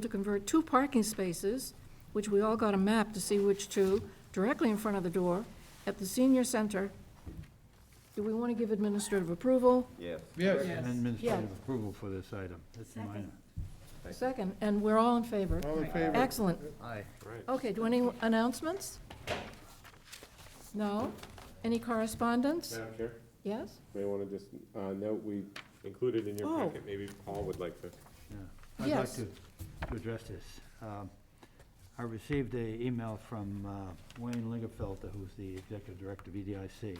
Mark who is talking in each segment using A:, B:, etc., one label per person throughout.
A: to convert two parking spaces, which we all got a map to see which two, directly in front of the door at the senior center. Do we want to give administrative approval?
B: Yes.
C: Yes.
D: Yes.
A: administrative
E: Administrative
A: Yeah.
E: approval for this item. That's
D: Second. minor.
A: Second, and we're all in favor.
C: All in favor?
A: Excellent.
E: Aye.
A: Okay, do any announcements? No? Any correspondence?
F: Madam Chair,
A: Yes?
F: may want to just uh, note, we included in your
A: Oh.
F: packet, maybe Paul would like to.
E: I'd like
A: Yes.
E: to to address this. Um, I received a email from uh, Wayne Lingerfelter, who's the executive director of E EDIC,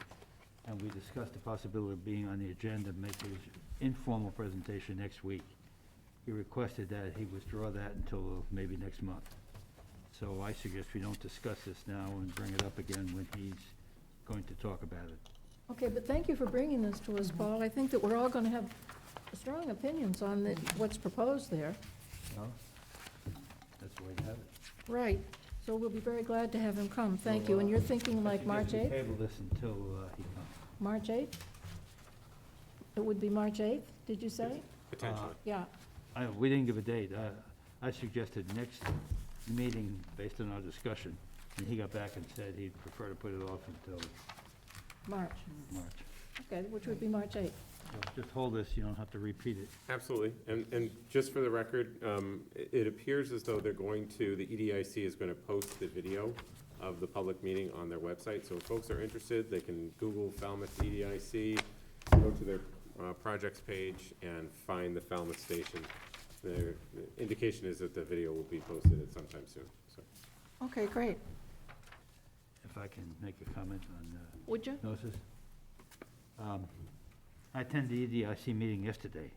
E: and we discussed the possibility of being on the agenda, and make his informal presentation next week. He requested that he withdraw that until uh, maybe next month. So I suggest we don't discuss this now and bring it up again when he's going to talk about it.
A: Okay, but thank you for bringing this to us, Paul. I think that we're all going to have strong opinions on the- what's proposed there.
E: No? That's why you have it.
A: Right, so we'll be very glad to have him come, thank you. And you're thinking like March 8th?
E: Table this until uh, he comes.
A: March 8th? It would be March 8th, did you say?
F: Potentially.
E: Uh.
A: Yeah,
E: I, we didn't give a date. Uh, I suggested next meeting based on our discussion, and he got back and said he'd prefer to put it off until
A: March,
E: March.
A: okay, which would be March 8th.
E: So Just hold this, you don't have to repeat it.
F: Absolutely. And, and just for the record, um, it, it appears as though they're going to, the E EDIC is going to post the video of the public meeting on their website. So if folks are interested, they can Google Falmouth E EDIC, go to their uh, projects page and find the Falmouth station. The the indication is that the video will be posted at some time soon, so.
A: Okay, great.
E: If I can make a comment on uh,
A: Would you?
E: diagnosis. Um, I attended the EDIC meeting yesterday,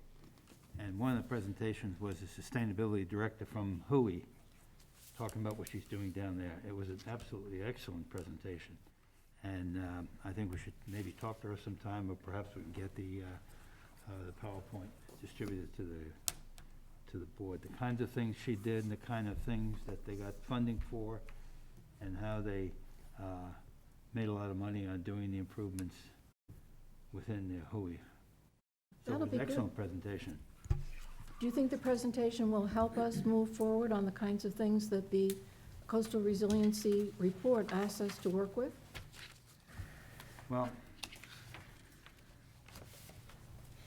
E: and one of the presentations was a sustainability director from Hui, talking about what she's doing down there. It was an absolutely excellent presentation, and um, I think we should maybe talk to her sometime, or perhaps we can get the, uh, uh, the PowerPoint distributed to the, to the board. The kinds of things she did, and the kind of things that they got funding for, and how they uh, made a lot of money on doing the improvements within the Hui. So it
A: That'll
E: was
A: be
E: an
A: good.
E: excellent presentation.
A: Do you think the presentation will help us move forward on the kinds of things that the coastal resiliency report asks us to work with?
E: Well,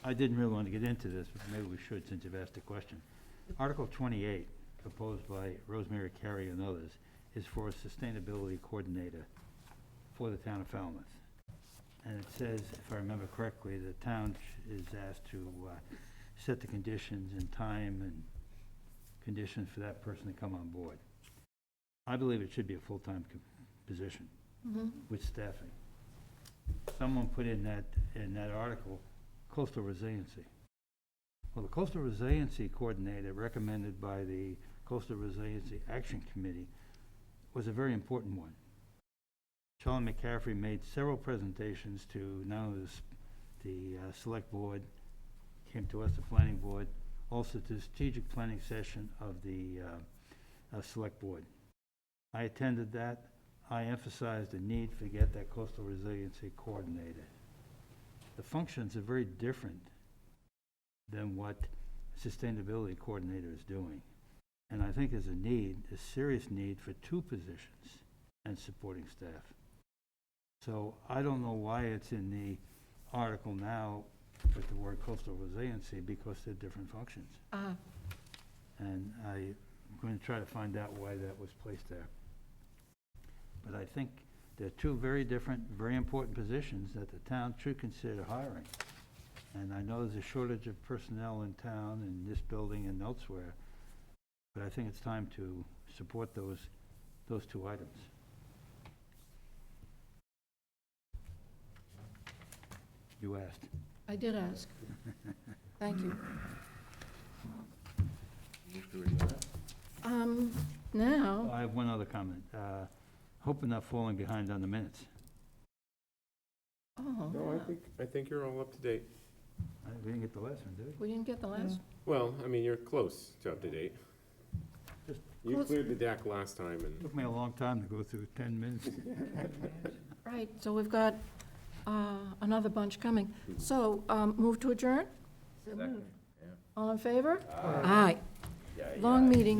E: I didn't really want to get into this, but maybe we should since you've asked the question. Article 28, proposed by Rosemary Carey and others, is for a sustainability coordinator for the town of Falmouth. And it says, if I remember correctly, the town sh- is asked to uh, set the conditions and time and conditions for that person to come on board. I believe it should be a full-time co- position
A: Mm-hmm.
E: with staffing. Someone put in that, in that article, coastal resiliency. Well, the coastal resiliency coordinator recommended by the Coastal Resiliency Action Committee was a very important one. Sean McCaffrey made several presentations to not only the, s- the uh, select board, came to us, the planning board, also to the strategic planning session of the uh, uh, select board. I attended that. I emphasize the need to get that coastal resiliency coordinated. The functions are very different than what sustainability coordinator is doing. And I think there's a need, a serious need for two positions and supporting staff. So I don't know why it's in the article now with the word coastal resiliency because they're different functions.
A: Ah,
E: And I'm going to try to find out why that was placed there. But I think they're two very different, very important positions that the town should consider hiring. And I know there's a shortage of personnel in town, in this building and elsewhere, but I think it's time to support those, those two items. You asked.
A: I did ask. Thank you. Um, now.
E: I have one other comment. Uh, Hope we're not falling behind on the minutes.
A: Oh,
F: No, I think, I think you're all up to date.
E: I- We didn't get the last one, did we?
A: we didn't get the last,
F: Well, I mean, you're close to up to date.
E: Just-
F: You
A: Close.
F: cleared the deck last time and.
E: Took me a long time to go through 10 minutes.
A: right, so we've got uh, another bunch coming. So, um, move to adjourn?
B: Second,
A: All in favor? Aye. Long meeting.